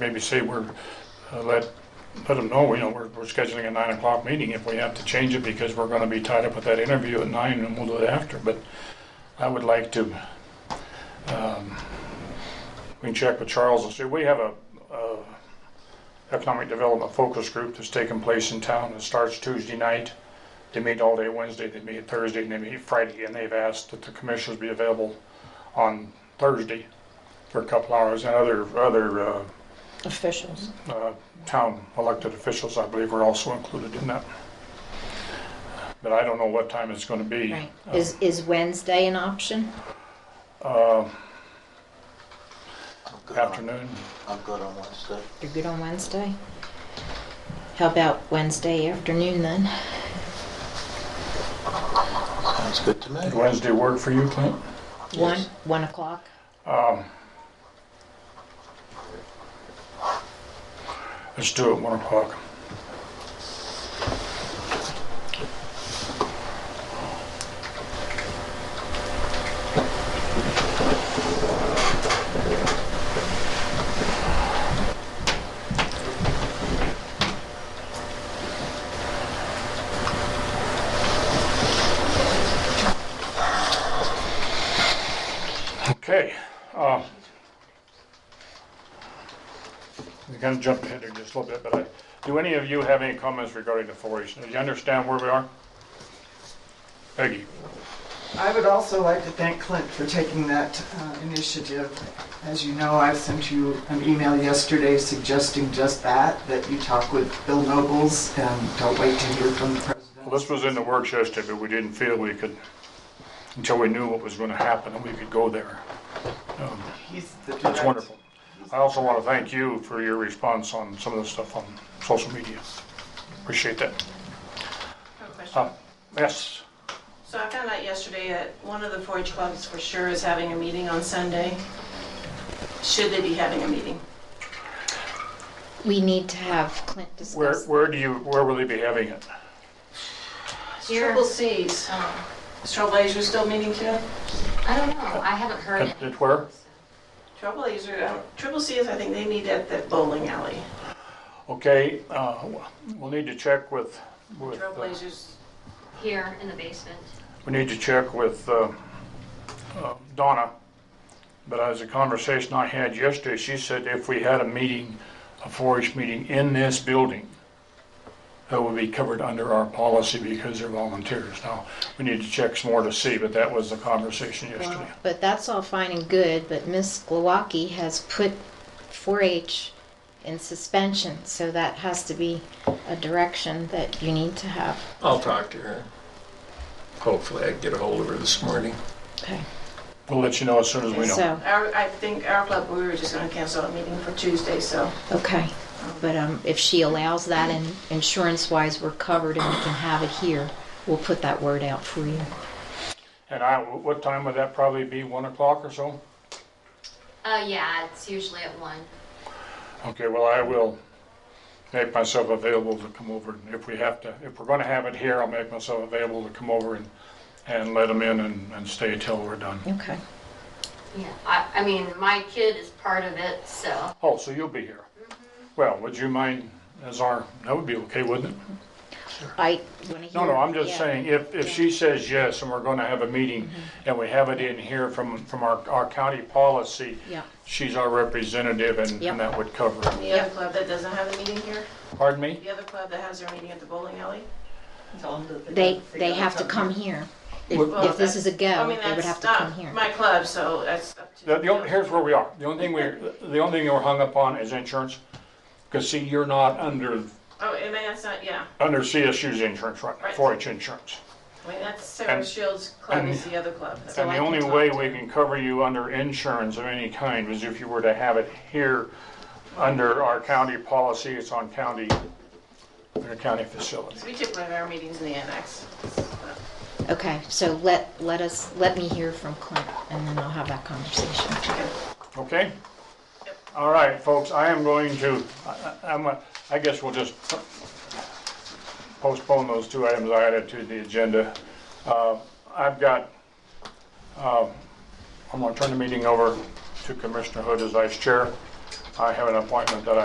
maybe say we're, uh, let, let them know, you know, we're, we're scheduling a nine o'clock meeting if we have to change it because we're gonna be tied up with that interview at nine and we'll do it after, but I would like to, um, we can check with Charles and see, we have a, uh, economic development focus group that's taking place in town. It starts Tuesday night. They meet all day Wednesday, they meet Thursday, and they meet Friday, and they've asked that the commissioners be available on Thursday for a couple hours, and other, other, uh, officials. uh, town elected officials, I believe, were also included in that. But I don't know what time it's gonna be. Right. Is, is Wednesday an option? Uh, I'm good on- afternoon, I'm good on Wednesday. You're good on Wednesday? How about Wednesday afternoon then? Sounds good to me. Did Wednesday work for you, Clint? One, Yes. one o'clock? Um, Let's do it one o'clock. Okay. um, We kind of jumped ahead here just a little bit, but I- do any of you have any comments regarding the 4-H? Do you understand where we are? Peggy? I would also like to thank Clint for taking that uh, initiative. As you know, I sent you an email yesterday suggesting just that, that you talk with Bill Nobles and don't wait to hear from the president. Well, this was in the works yesterday, but we didn't feel we could, until we knew what was going to happen and we could go there. Um, He's the That's direct- wonderful. I also want to thank you for your response on some of the stuff on social media. Appreciate that. I have a question. Uh, Yes, So I found out yesterday that one of the 4-H clubs for sure is having a meeting on Sunday. Should they be having a meeting? We need to have Clint where, discuss. where do you, where will they be having it? It's Here. Triple C's. Oh, Is Trailblazer still meeting too? I don't know. I haven't heard At it. at where? Trailblazer, I don't- um, Triple C's, I think they meet at the bowling alley. Okay, uh, we'll need to check with, with, uh, Trailblazers, Here in the basement. we need to check with uh, uh, Donna. But as a conversation I had yesterday, she said if we had a meeting, a 4-H meeting in this building, that would be covered under our policy because they're volunteers. Now, we need to check some more to see, but that was the conversation Well, yesterday. But that's all fine and good, but Miss Glowacki has put 4-H in suspension, so that has to be a direction that you need to have. I'll talk to her. Hopefully I can get a hold of her this morning. Okay. We'll let you know as soon as we know. So, our, I think our club, we were just gonna cancel a meeting for Tuesday, so. okay, but um, if she allows that and insurance-wise, we're covered and we can have it here, we'll put that word out for you. And I, what time would that probably be, 1 o'clock or so? Uh, yeah, it's usually at one. Okay, well, I will make myself available to come over, and if we have to, if we're gonna have it here, I'll make myself available to come over and, and let them in and, and stay till we're done. Okay. Yeah, I, I mean, my kid is part of it, so. Oh, so you'll be here? Mm-hmm. Well, would you mind as our, that would be okay, wouldn't it? I want to hear. No, no, I'm just yeah. Mm-hmm. saying, if, if she says yes, and we're gonna have a meeting, and we have it in here from, from our, our county policy, Yeah. she's our representative, and, Yep. and that would cover it. The other club that doesn't have a meeting here? Pardon me? The other club that has their meeting at the bowling alley? Tell him that They, gotta they have to tell come him. here. If, Well, if this is a I go, mean, they would that's have to not come here. My club, so that's up to. The, the only, here's where we are. The only thing we, the only thing we're hung up on is insurance. Cause see, you're not under, Oh, I mean, that's not, yeah. under CSU's insurance right now, Right. four H insurance. I mean, that's Sarah And- Shields' club and- is the other club. And I the can only talk way to we can cover you under insurance of any kind is if you were to have it here under our county policy. It's on county, under county facility. We took one of our meetings in the annex. Okay, so let, let us, let me hear from Clint and then I'll have that conversation. Okay? All right, folks, I am going to, I- I- I'm, a- I guess we'll just postpone those two items I added to the agenda. Uh, I've got, uh, I'm gonna turn the meeting over to Commissioner Hood as vice chair. I have an appointment that I